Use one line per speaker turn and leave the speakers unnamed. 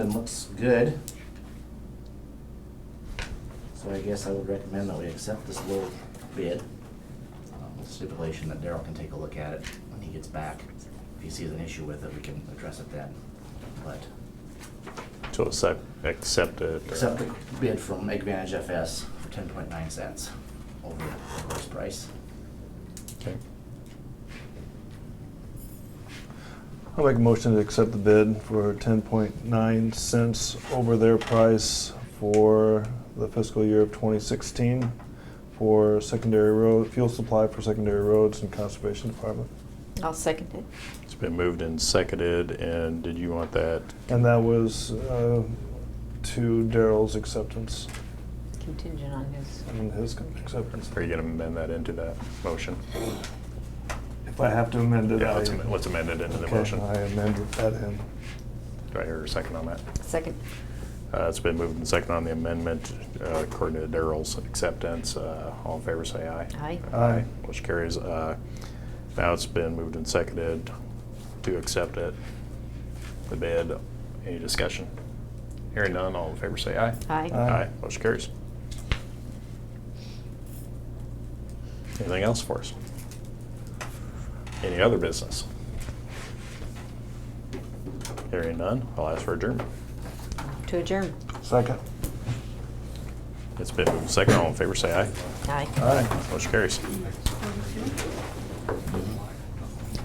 and looks good. So I guess I would recommend that we accept this little bid, um, with stipulation that Daryl can take a look at it when he gets back. If he sees an issue with it, we can address it then. But
So it's like accepted.
accept the bid from Advantage FS for ten point nine cents over the lowest price.
Okay.
I'll make a motion to accept the bid for ten point nine cents over their price for the fiscal year of twenty sixteen for secondary road, fuel supply for secondary roads and conservation department.
I'll second it.
It's been moved and seconded, and did you want that?
And that was, uh, to Daryl's acceptance
Contingent on his.
and his acceptance.
Are you gonna amend that into that motion?
If I have to amend it,
Yeah,
I.
let's amend- let's amend it into the
Okay,
motion.
I amended that in.
Do I hear a second on that?
Second.
Uh, It's been moved and seconded on the amendment uh, according to Daryl's acceptance. Uh, All in favor, say aye.
Aye.
Aye.
Which carries. uh, Now it's been moved and seconded to accept it, the bid. Any discussion? Hearing none, all in favor, say aye.
Aye.
Aye.
Aye, motion carries. Anything else for us? Any other business? Hearing none, I'll ask for adjournment.
To adjourn.
Second.
It's been moved and seconded, all in favor, say aye.
Aye.
Aye.
Motion carries.
Thank you.